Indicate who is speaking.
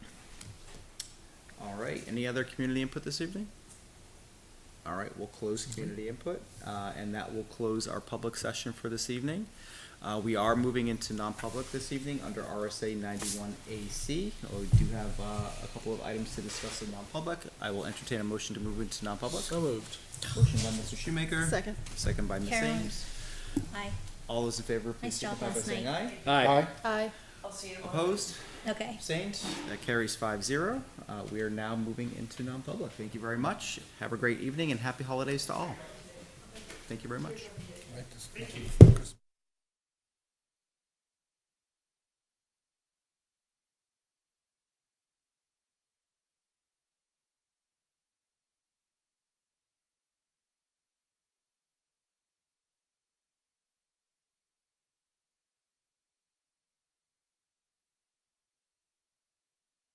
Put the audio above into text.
Speaker 1: right, any other community input this evening? All right, we'll close community input, uh, and that will close our public session for this evening. Uh, we are moving into non-public this evening under RSA ninety-one AC. We do have, uh, a couple of items to discuss in non-public. I will entertain a motion to move into non-public.
Speaker 2: So moved.
Speaker 1: Motion by Mr. Shoemaker.
Speaker 3: Second.
Speaker 1: Second by Ms.
Speaker 4: Carolyn.
Speaker 1: Ames.
Speaker 4: Aye.
Speaker 1: All those in favor, please
Speaker 4: Nice job
Speaker 1: signify by
Speaker 4: last
Speaker 1: saying aye.
Speaker 4: night.
Speaker 2: Aye.
Speaker 3: Aye.
Speaker 1: Opposed?
Speaker 4: Okay.
Speaker 1: Abstained? That carries five zero. Uh, we are now moving into non-public. Thank you very much. Have a great evening and happy holidays to all. Thank you very much.
Speaker 2: Right, this- Christmas.